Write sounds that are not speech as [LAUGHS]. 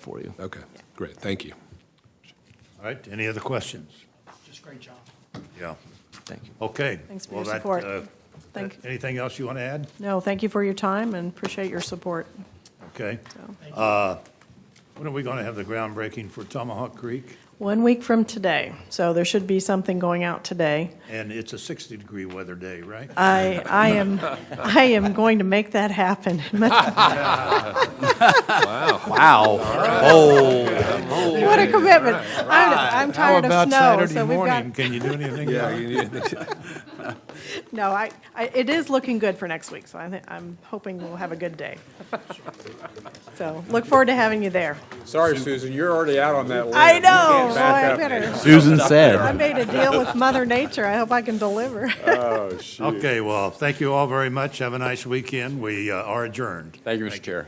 for you. Okay, great, thank you. All right, any other questions? Just great job. Yeah, Thank you. okay. Thanks for Well, your that, support. uh, Thank- that- Anything else you want to add? No, thank you for your time and appreciate your support. Okay. Uh, So, When are we going to have the groundbreaking for Tomahawk Creek? One week from today, so there should be something going out today. And it's a 60-degree weather day, right? I, I am, I am going to make that happen. [LAUGHS] What Wow. a commitment. I'm I'm tired of snow, so we've got, Can you do anything? [LAUGHS] Yeah, you- no, I, I, it is looking good for next week, so I think, I'm hoping we'll have a good day. So look forward to having you there. Sorry, Susan, you're already out on that list. I You can't know, boy, back I up. better, Susan I said. made a deal with Mother Nature. I hope I can deliver. Oh, shoot. Okay, well, thank you all very much. Have a nice weekend. We uh, are adjourned. Thank you, Mr. Chair.